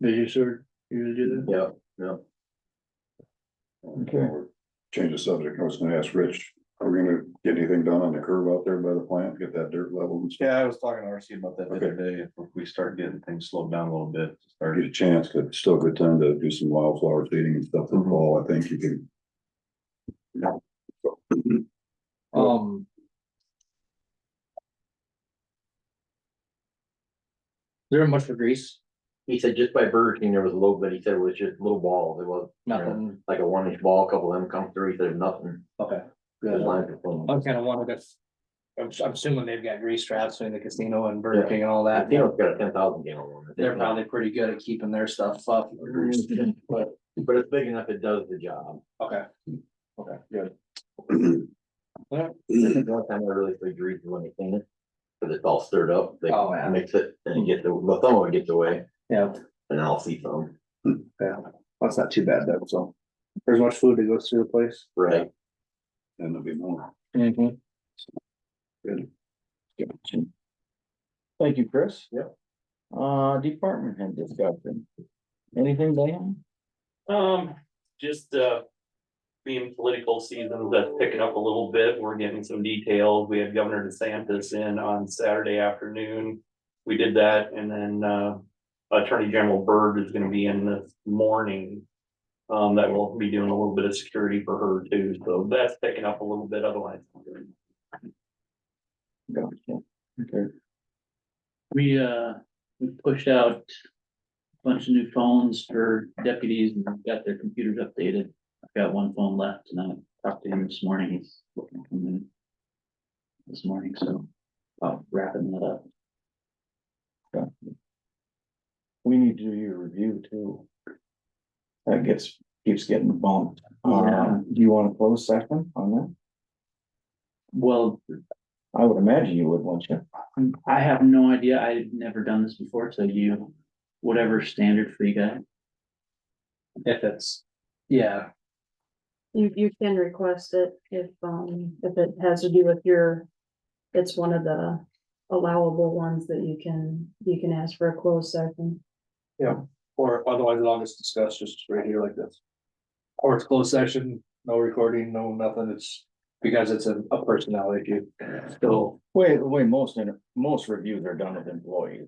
Did you sort, you do that? Yeah, no. Okay. Change the subject, I was gonna ask Rich, are we gonna get anything done on the curve out there by the plant, get that dirt leveled and stuff? Yeah, I was talking to RC about that the other day, if we start getting things slowed down a little bit, Or start Get a chance, but it's still a good time to do some wildflower seeding and stuff Mhm. in the fall, I think you can. Um. Is there much for grease? He said just by Burger King, there was a little bit, he said it was just little balls, it was Nothing. like a one inch ball, a couple of them come through, he said nothing. Okay. Just lined it full. I'm kinda wondering if, I'm, I'm assuming they've got grease traps in the casino and Burger Yeah. King and all I that. think it's got a ten thousand gallon one. I think. They're probably pretty good at keeping their stuff up. But, But it's big enough, it does the job. okay, Okay, good. The only time I really figured reason when they clean it, cause it's all stirred up, they Oh, yeah. mix it and get the, the thumb would get away, yeah, and I'll see some, that's not too bad though, so. There's much food that goes through the place. right? And there'll be more. Mm-hmm. Good. Thank you, Chris. Yep. Uh, department head discussion. Anything, Dan? Um, just, uh, being political season, that's picking up a little bit. We're getting some details. We had Governor DeSantis in on Saturday afternoon. We did that and then, uh, Attorney General Byrd is gonna be in this morning. Um, that will be doing a little bit of security for her too, so that's picking up a little bit, otherwise. Gotcha. Okay, We, uh, we pushed out a bunch of new phones for deputies and got their computers updated. I've got one phone left and I talked to him this morning. He's looking to come in this morning, so, uh, wrapping that up. we need to do your review too. That gets, keeps getting bumped. Um, do you want a closed session on that? Well, I would imagine you would, wouldn't you? I have no idea. I've never done this before, so you, whatever standard for you guys. If it's, yeah, You, you can request it if, um, if it has to do with your, it's one of the allowable ones that you can, you can ask for a closed session. or otherwise I'll just discuss just right here like this. Or it's closed session, no recording, no nothing, it's because it's a a personnel issue, so. Way, the way most, inter- most reviews are done with employees.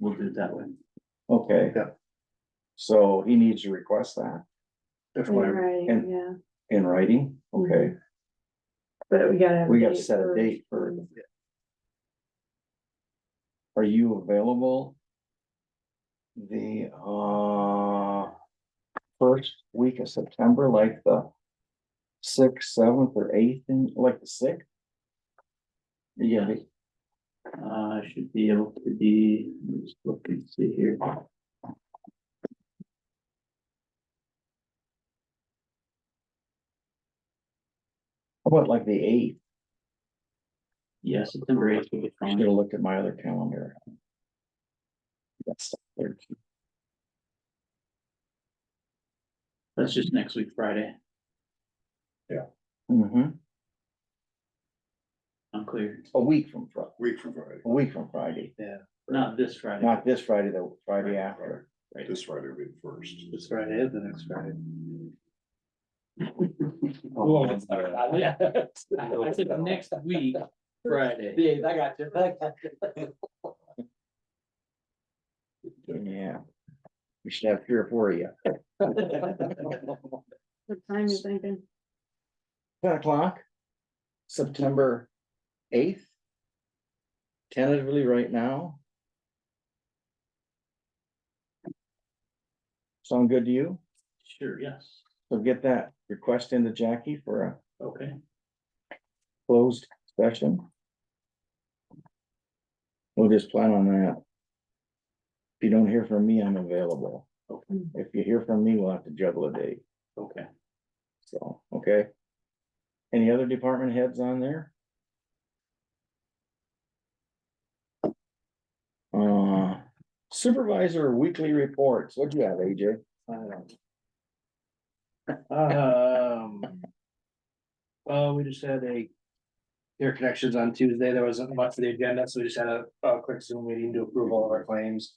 We'll do it that way. Okay. Yeah. So he needs to request that If whatever, Right, and- yeah, in writing. Okay, but we gotta. have we gotta date set a first. date for. Are you available? The, uh, first week of September, like the sixth, seventh, or eighth, and like the sixth? You Yeah, gonna be, uh, I should be able to be, let me just look and see here. how about like the eighth? Yeah, September eighth will be I'm fine. gonna look at my other calendar. That's the thirteenth. That's just next week, Friday. Mm-hmm. I'm clear. A week from Friday, Week from Friday, a week from Friday, Not this Friday. not this Friday, the Friday after. this Friday will be the first. this Friday is the next Friday. Well, it's not- I said next week, Friday. Yeah, I got you, I got you. Yeah. We should have three or four of you. What time you thinking? Ten o'clock, September eighth. Tentatively right now. Sound good to you? Sure, yes. So get that request into Jackie for a Okay. closed session. We'll just plan on that. If you don't hear from me, I'm available. If you hear from me, we'll have to juggle a date. Okay. So, okay. Any other department heads on there? Uh, supervisor weekly reports, what do you have, AJ? Um. Well, we just had a. Air connections on Tuesday, there wasn't much for the agenda, so we just had a, a quick Zoom meeting to approve all of our claims.